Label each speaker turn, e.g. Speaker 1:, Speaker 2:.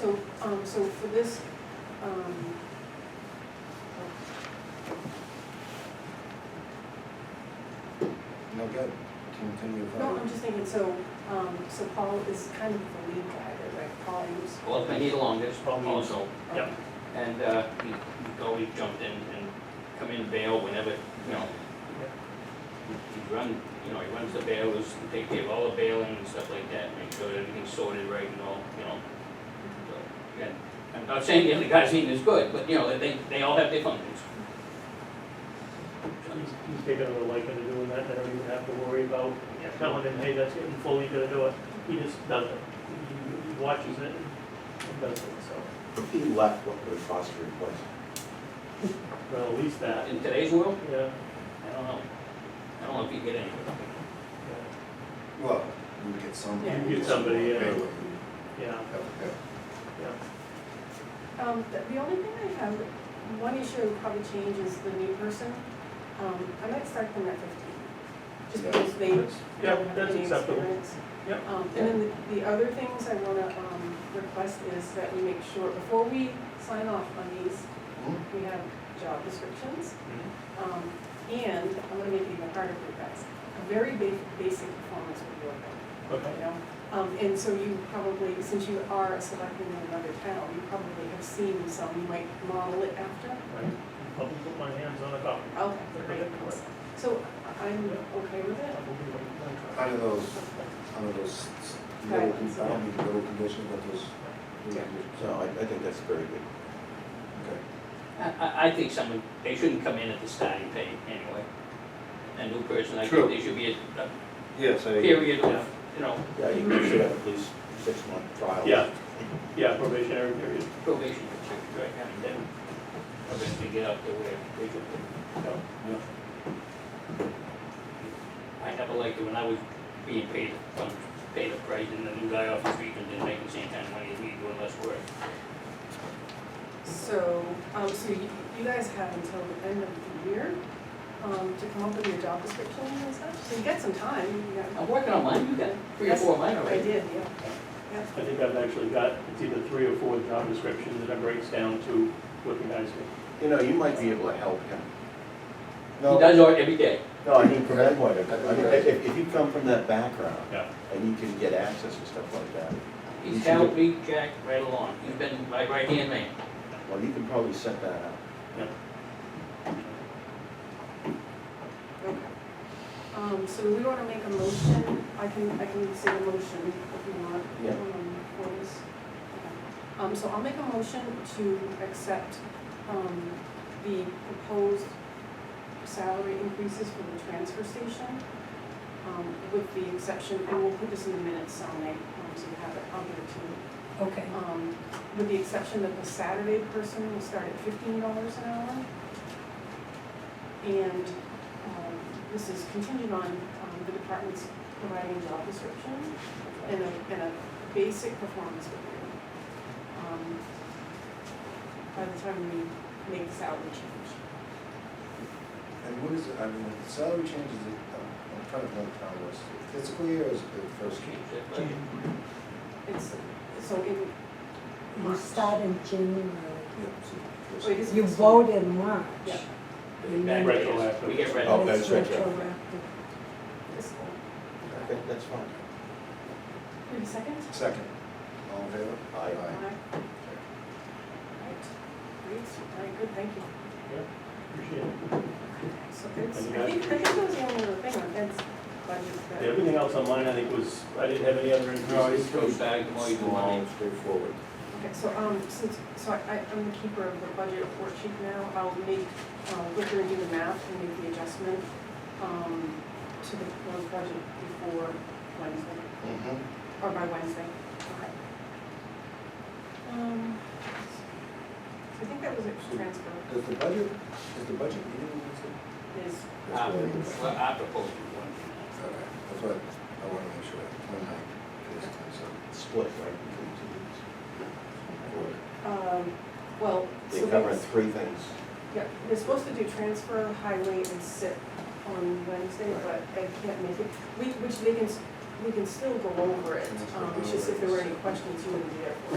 Speaker 1: So, um, so for this, um,
Speaker 2: No good, continue
Speaker 1: no,
Speaker 2: voting.
Speaker 1: I'm just thinking, so, um, so Paul is kind of the lead driver, right? Paul is.
Speaker 3: Well, if I need along, there's probably also,
Speaker 4: Yep.
Speaker 3: and, uh, we, we go, we've jumped in and come in bail whenever, you know. He he run, you know, he runs the bailers, we take care of all the bailing and stuff like that, make sure that everything's sorted right and all, you know. So, again, I'm not saying the other guy's eating is good, but, you know, they, they all have their functions.
Speaker 4: He's, he's taken a little liking to doing that, I don't even have to worry about telling him, hey, that's getting fully gonna do it. He just does it. He- He watches it and does it, so,
Speaker 5: He left what was fostering place.
Speaker 4: well, at least that,
Speaker 3: In today's world,
Speaker 4: yeah.
Speaker 3: I don't know. I don't know if you get anywhere.
Speaker 4: yeah,
Speaker 2: Well, you would get somebody.
Speaker 1: Yeah.
Speaker 4: You get somebody, yeah.
Speaker 2: Bailey.
Speaker 4: Yeah, yeah.
Speaker 1: Um, the, the only thing I have, one issue would probably change is the new person. Um, I might start them at fifteen, just
Speaker 2: Yeah.
Speaker 1: because they
Speaker 4: That's- Yeah,
Speaker 1: don't have
Speaker 4: that's
Speaker 1: any
Speaker 4: acceptable.
Speaker 1: experience.
Speaker 4: Yep.
Speaker 1: Um, and then the, the other things I wanna, um, request is that we make sure, before we sign off on these,
Speaker 2: Mhm.
Speaker 1: we have job descriptions.
Speaker 4: Mm-hmm.
Speaker 1: Um, and I'm gonna make it even harder for you guys, a very ba- basic performance review of them
Speaker 4: Okay,
Speaker 1: you know? Um, and so you probably, since you are a selectman in another town, you probably have seen some, you might model it after.
Speaker 4: right. I'll put my hands on a copy.
Speaker 1: Okay,
Speaker 4: Okay.
Speaker 1: great, awesome. So I- I'm okay with
Speaker 4: I'll
Speaker 1: it.
Speaker 4: be waiting.
Speaker 2: Under those, under those little, I don't need little conditions, but those.
Speaker 1: Yeah.
Speaker 5: So I, I think that's very good.
Speaker 2: Okay.
Speaker 3: I, I, I think someone, they shouldn't come in at the starting pay anyway. A new person, I
Speaker 2: True.
Speaker 3: think they should be a, a
Speaker 5: Yes,
Speaker 3: period of, you know,
Speaker 5: Yeah, you should have at least six month trial.
Speaker 4: Yeah, yeah, probationary period.
Speaker 3: probation period, right, and then, eventually get up to where they could.
Speaker 4: Yeah.
Speaker 3: I never liked it when I was being paid, um, paid up right, and the new guy off the street and didn't make the same kind of money as me doing less work.
Speaker 1: So, um, so you, you guys have until the end of the year, um, to come up with your job descriptions and stuff, so you got some time, you got.
Speaker 3: I'm working on mine, you got three or four of mine
Speaker 1: I
Speaker 3: already.
Speaker 1: did, yeah, yeah.
Speaker 4: I think I've actually got, it's either three or four job descriptions that I breaks down to what the guys do.
Speaker 5: You know, you might be able to help him.
Speaker 3: He does art every day.
Speaker 5: No, I mean, from that point of, I mean, if, if you come from that background.
Speaker 4: Yeah.
Speaker 5: And you can get access to stuff like that,
Speaker 3: He's helped me jack right along. He's been my right-hand man.
Speaker 5: well, you can probably set that up.
Speaker 1: Okay. Um, so we wanna make a motion, I can, I can say the motion if you want.
Speaker 5: Yeah.
Speaker 1: um, For this. Okay. Um, so I'll make a motion to accept, um, the proposed salary increases for the transfer station, um, with the exception, and we'll put this in the minutes, Sally, um, so you have it on there too.
Speaker 6: Okay,
Speaker 1: Um, with the exception that the Saturday person will start at fifteen dollars an hour. And, um, this is contingent on, um, the department's providing job description and a, and a basic performance review. um, By the time we make the salary change.
Speaker 2: And what is it, I mean, the salary changes, uh, I'm trying to think how it was, fiscal year is the first year?
Speaker 1: It's, so in
Speaker 6: you
Speaker 1: March.
Speaker 6: start in January.
Speaker 2: Yeah, so first-
Speaker 1: Wait, is it
Speaker 6: You
Speaker 1: fiscal?
Speaker 6: vote in March.
Speaker 1: Yeah.
Speaker 3: Back days. We get red.
Speaker 5: Oh,
Speaker 6: but it's
Speaker 5: that's retroactive.
Speaker 6: retroactive.
Speaker 1: Fiscal.
Speaker 5: Okay, that's fine.
Speaker 1: Wait a second.
Speaker 2: Second, all in favor?
Speaker 5: Aye.
Speaker 1: Aye.
Speaker 2: Aye.
Speaker 1: Right, great, all right, good, thank you.
Speaker 4: Appreciate it.
Speaker 1: So it's,
Speaker 4: And you
Speaker 1: I
Speaker 4: guys
Speaker 1: think, I think that was the only other thing, like that's budget. that-
Speaker 4: Yeah, Everything else online, I think was, I didn't have any other increases.
Speaker 3: Goes back, the more you do money.
Speaker 5: Small, straightforward.
Speaker 1: Okay, so, um, since, so I, I- I'm the keeper of the budget worksheet now, I'll make, uh, look through and do the math and make the adjustment, um, to the proposed budget before Wednesday,
Speaker 2: Mhm.
Speaker 1: or by Wednesday, okay. Um, I think that was it, for transfer
Speaker 2: Does the budget, is the budget meeting Wednesday?
Speaker 1: is,
Speaker 3: Uh,
Speaker 2: That's what it is.
Speaker 3: well, I propose one.
Speaker 2: Okay, that's what, I want to make sure, one night, this time, so.
Speaker 5: Split right between
Speaker 1: um, well, so
Speaker 5: two weeks. They cover
Speaker 1: that's,
Speaker 5: three things.
Speaker 1: yeah, we're supposed to do transfer, highway, and SIP on Wednesday, but I can't make it. We, which they can, s- we can still go over it, um, it's just if there were any questions, you wouldn't be there for it.